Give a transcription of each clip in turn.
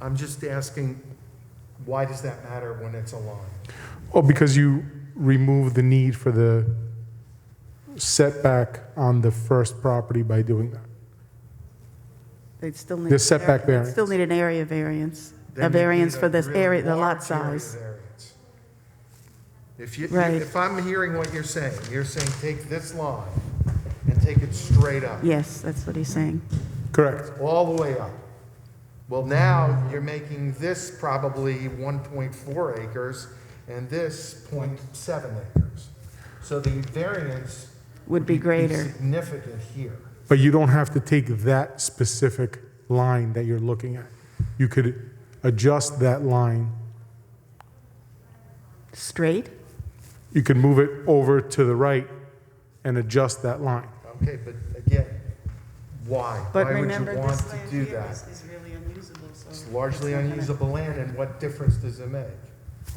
I'm just asking, why does that matter when it's a line? Oh, because you remove the need for the setback on the first property by doing that. They'd still need. The an setback area- variance. Still need an area variance, Then a you need variance for this really area, the lot large area size. variance. If you, Right. if I'm hearing what you're saying, you're saying take this line and take it straight up, Yes, that's what he's saying. Correct. all the way up. Well, now you're making this probably 1.4 acres and this .7 acres. So the variance. Would be greater. Significant here. But you don't have to take that specific line that you're looking at. You could adjust that line. Straight? You could move it over to the right and adjust that line. Okay, but again, why? But Why would remember, you this want to do that? is really unusable, so. It's largely unusable land, and what difference does it make?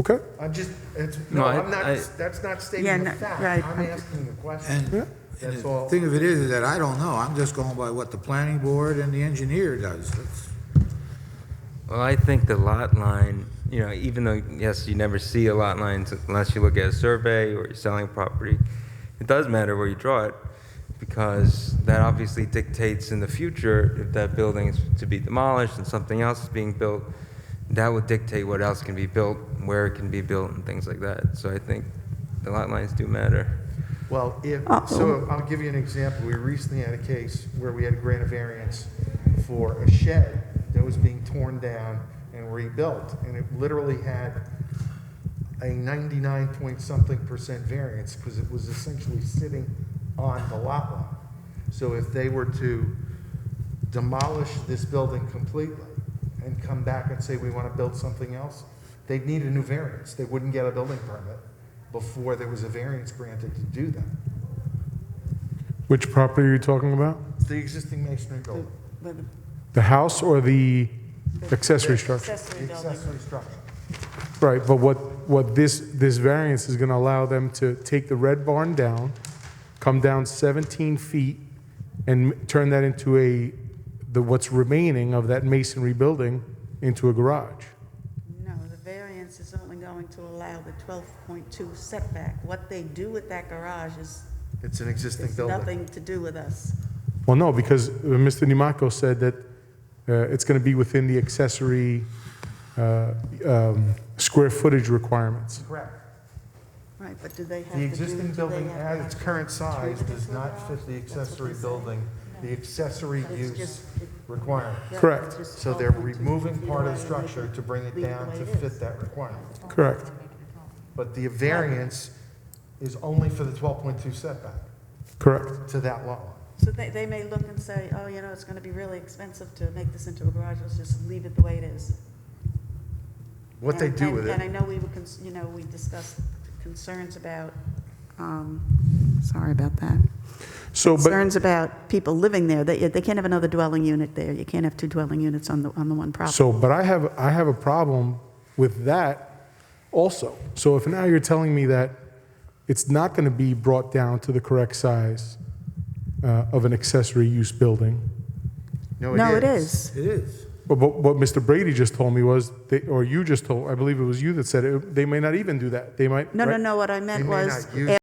Okay? I'm just, it's, no, No, I- I'm not, I- that's not Yeah, stating the no, fact. right. I'm asking the question. And and That's the all. thing of it is, is that I don't know. I'm just going by what the planning board and the engineer does. That's- Well, I think the lot line, you know, even though, yes, you never see a lot line unless you look at a survey or you're selling property, it does matter where you draw it because that obviously dictates in the future if that building is to be demolished and something else is being built, that would dictate what else can be built, where it can be built, and things like that. So I think the lot lines do matter. Well, if, Uh, oh. so I'll give you an example. We recently had a case where we had a grant of variance for a shed that was being torn down and rebuilt, and it literally had a 99 point something percent variance because it was essentially sitting on the lot line. So if they were to demolish this building completely and come back and say, we want to build something else, they'd need a new variance. They wouldn't get a building permit before there was a variance granted to do that. Which property are you talking about? The existing masonry building, The house or the accessory structure? Accessory the accessory structure. Right, but what, what this, this variance is gonna allow them to take the red barn down, come down 17 feet, and m- turn that into a, the, what's remaining of that masonry building into a garage. No, the variance is only going to allow the 12.2 setback. What they do with that garage is, It's an existing is building. nothing to do with us. Well, no, because uh, Mr. Nimaco said that uh, it's gonna be within the accessory uh, um, square footage requirements. Correct. Right, but do they have to The do? existing do building they have at its to current size turn it does into a not garage? fit the That's what accessory they're saying. building, the accessory But it's use just- it- requirement. yeah, it's Correct. just So they're 12.2 removing feet part of away the and they structure can to bring it leave the down way to it is. fit that requirement. Correct. But the variance is only for the 12.2 setback Correct. to that lot line. So they, they may look and say, oh, you know, it's gonna be really expensive to make this into a garage, let's just leave it the way it is. What they And- do and- with And I it, know we were, cons- you know, we discussed concerns about, um, sorry about that. Oh, So, but, Concerns about people living there, they, they can't have another dwelling unit there, you can't have two dwelling units on the, on the one property. so, but I have, I have a problem with that also. So if now you're telling me that it's not gonna be brought down to the correct size uh, of an accessory use building, no, it is. No, it is. It is. But, but what Mr. Brady just told me was, they, or you just told, I believe it was you that said it, they may not even do that. They might. No, no, right? no, what I They meant may was, not use